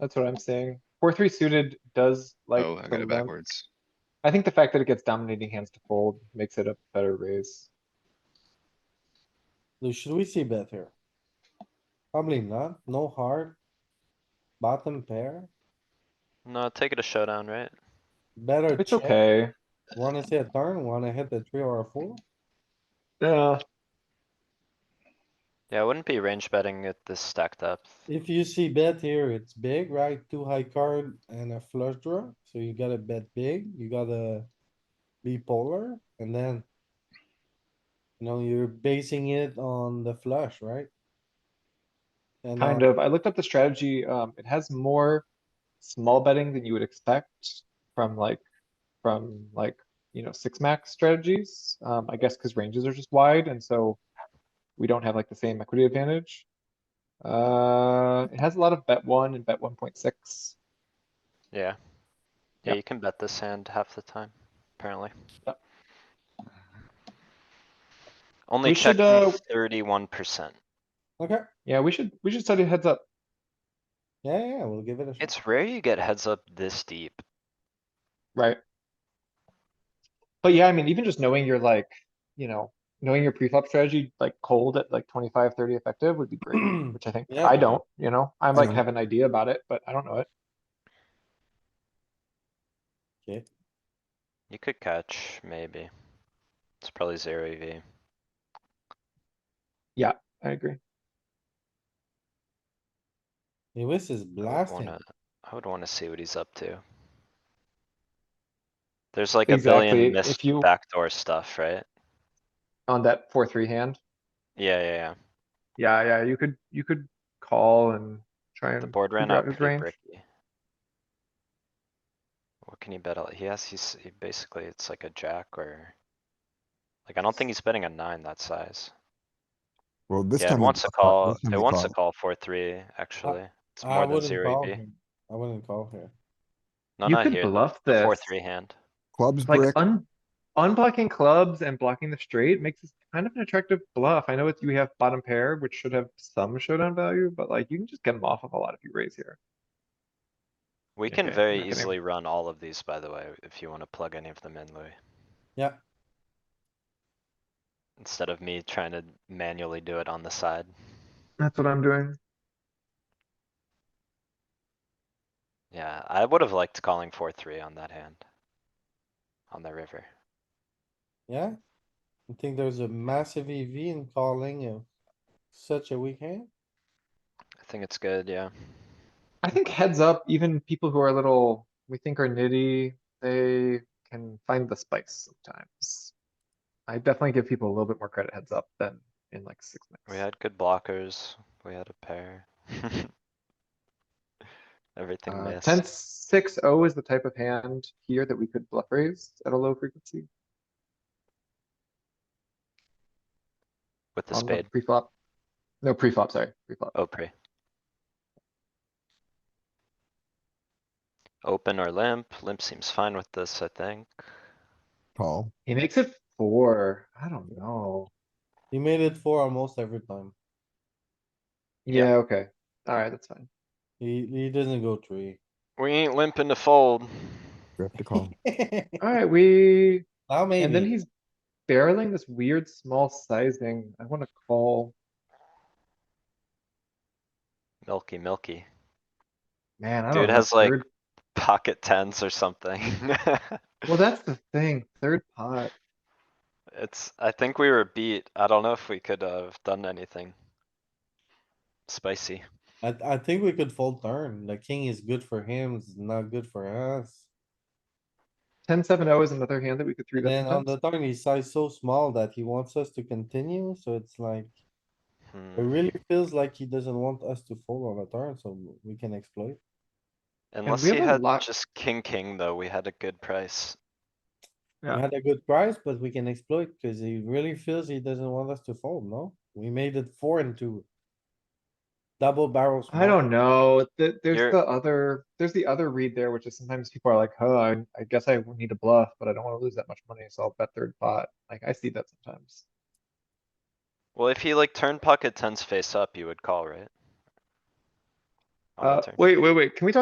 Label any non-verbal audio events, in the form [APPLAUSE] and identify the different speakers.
Speaker 1: That's what I'm saying. Four, three suited does like.
Speaker 2: Oh, I got
Speaker 1: some
Speaker 2: it
Speaker 1: of them.
Speaker 2: backwards.
Speaker 1: I think the fact that it gets dominating hands to fold makes it a better raise.
Speaker 3: Lou, Should we see bet here? Probably not, no hard. Bottom pair,
Speaker 4: No, take it a showdown, right?
Speaker 3: better
Speaker 1: It's
Speaker 3: check.
Speaker 1: okay.
Speaker 3: Wanna see a turn, wanna hit the three or a four?
Speaker 1: Yeah,
Speaker 4: Yeah, I wouldn't be range betting at this stacked up.
Speaker 3: If you see bet here, it's big, right? Two high card and a flush draw, so you gotta bet big, you gotta be polar, and then you know, you're basing it on the flush, right? And uh,
Speaker 1: kind
Speaker 3: on-
Speaker 1: of. I looked up the strategy. Um, it has more small betting than you would expect from like, from like, you know, six max strategies. Um, I guess because ranges are just wide and so we don't have like the same equity advantage. Uh, it has a lot of bet one and bet one point six.
Speaker 4: Yeah. Yeah,
Speaker 1: Yep.
Speaker 4: you can bet this hand half the time, apparently.
Speaker 1: Yep.
Speaker 4: Only
Speaker 1: We should,
Speaker 4: checked
Speaker 1: uh,
Speaker 4: thirty-one percent.
Speaker 3: Okay,
Speaker 1: Yeah, we should, we should study heads up.
Speaker 3: yeah, yeah, we'll give it a shot.
Speaker 4: It's rare you get heads up this deep.
Speaker 1: Right. But yeah, I mean, even just knowing your like, you know, knowing your pre-flop strategy, like cold at like 25, 30 effective would be
Speaker 4: [CLEARS THROAT]
Speaker 1: great, which I think,
Speaker 3: Yeah.
Speaker 1: I don't, you know, I like
Speaker 3: know.
Speaker 1: have an idea about it, but I don't know it.
Speaker 3: Okay,
Speaker 4: You could catch, maybe. It's probably zero E EV.
Speaker 1: I agree.
Speaker 3: Lewis is
Speaker 4: I would
Speaker 3: blasting.
Speaker 4: wanna, I would wanna see what he's up to. There's like a
Speaker 1: Exactly,
Speaker 4: billion
Speaker 1: if
Speaker 4: missed
Speaker 1: you-
Speaker 4: backdoor stuff, right?
Speaker 1: On that four, three hand.
Speaker 4: Yeah, yeah, yeah.
Speaker 1: Yeah, yeah, you could, you could call and try
Speaker 4: The
Speaker 1: and,
Speaker 4: board ran
Speaker 1: figure out
Speaker 4: out
Speaker 1: his
Speaker 4: pretty
Speaker 1: range.
Speaker 4: bricky. What can he bet? out? He has, he's, he basically, it's like a jack or. Like, I don't think he's betting a nine that size.
Speaker 5: Well, this
Speaker 4: Yeah,
Speaker 5: time.
Speaker 4: it
Speaker 5: we
Speaker 4: wants to
Speaker 5: call-
Speaker 4: call,
Speaker 5: this time
Speaker 4: it
Speaker 5: we
Speaker 4: wants to call four, three, actually. It's
Speaker 3: I
Speaker 4: more than
Speaker 3: wouldn't
Speaker 4: zero
Speaker 3: call
Speaker 4: EV.
Speaker 3: here. I wouldn't call here.
Speaker 4: No,
Speaker 1: You
Speaker 4: not
Speaker 1: could
Speaker 4: here,
Speaker 1: bluff
Speaker 4: the
Speaker 1: this.
Speaker 4: four, three hand.
Speaker 5: Clubs
Speaker 1: Like
Speaker 5: brick,
Speaker 1: un, unblocking clubs and blocking the straight makes this kind of an attractive bluff. I know it's, you have bottom pair, which should have some showdown value, but like you can just get them off of a lot if you raise here.
Speaker 4: We
Speaker 1: Okay,
Speaker 4: can
Speaker 1: I'm not
Speaker 4: very
Speaker 1: gonna-
Speaker 4: easily run all of these, by the way, if you wanna plug any of them in, Louis.
Speaker 3: Yeah.
Speaker 4: Instead of me trying to manually do it on the side.
Speaker 1: That's what I'm doing.
Speaker 4: Yeah, I would have liked calling four, three on that hand. On the river.
Speaker 3: Yeah, I think there's a massive EV in calling a such a weak hand.
Speaker 4: I think it's good, yeah.
Speaker 1: I think heads up, even people who are a little, we think are nitty, they can find the spice sometimes. I definitely give people a little bit more credit heads up than in like six
Speaker 4: We
Speaker 1: minutes.
Speaker 4: had good blockers, we had a pair. [LAUGHS] Everything
Speaker 1: Uh,
Speaker 4: missed.
Speaker 1: ten, six, oh is the type of hand here that we could bluff raise at a low frequency
Speaker 4: With the
Speaker 1: on the
Speaker 4: spade, Oh,
Speaker 1: pre-flop. No, pre-flop, sorry, pre-flop.
Speaker 4: Opry. Open or limp, limp seems fine with this, I think.
Speaker 5: call.
Speaker 1: He makes it four. I don't know.
Speaker 3: He made it four almost every time.
Speaker 4: Yeah.
Speaker 1: Yeah, okay. Alright, that's fine.
Speaker 3: He, he doesn't go three. [LAUGHS]
Speaker 4: We ain't limping to fold.
Speaker 5: We have to call.
Speaker 1: Alright, we
Speaker 3: Now
Speaker 1: And then
Speaker 3: maybe,
Speaker 1: he's barreling this weird small sizing. I wanna call,
Speaker 4: Milky, milky.
Speaker 1: man, I don't know.
Speaker 4: Dude has like
Speaker 1: third-
Speaker 4: pocket tens or something. [LAUGHS]
Speaker 1: Well, that's the thing, third pot.
Speaker 4: It's, I think we were beat. I don't know if we could uh, have done anything. Spicy.
Speaker 3: I, I think we could fold turn. The king is good for him, it's not good for us.
Speaker 1: Ten, seven, oh is another hand that we could three
Speaker 3: And
Speaker 1: bet
Speaker 3: then on the
Speaker 1: sometimes.
Speaker 3: turn, he size so small that he wants us to continue, so it's like, it
Speaker 4: Hmm.
Speaker 3: really feels like he doesn't want us to fold on the turn, so we can exploit.
Speaker 4: Unless
Speaker 1: we
Speaker 4: he
Speaker 1: have a
Speaker 4: had
Speaker 1: lot-
Speaker 4: just king, king though, we had a good price.
Speaker 1: Yeah.
Speaker 3: We had a good price, but we can exploit because he really feels he doesn't want us to fold, no? We made it four and two. Double barrels.
Speaker 1: I don't know, th-
Speaker 4: You're-
Speaker 1: there's the other, there's the other read there, which is sometimes people are like, huh, I, I guess I need a bluff, but I don't wanna lose that much money, so I'll bet third pot. Like, I see that sometimes.
Speaker 4: Well, if he like turned pocket tens face up, you would call, right? on that
Speaker 1: Uh,
Speaker 4: turn.
Speaker 1: wait, wait, wait, can we talk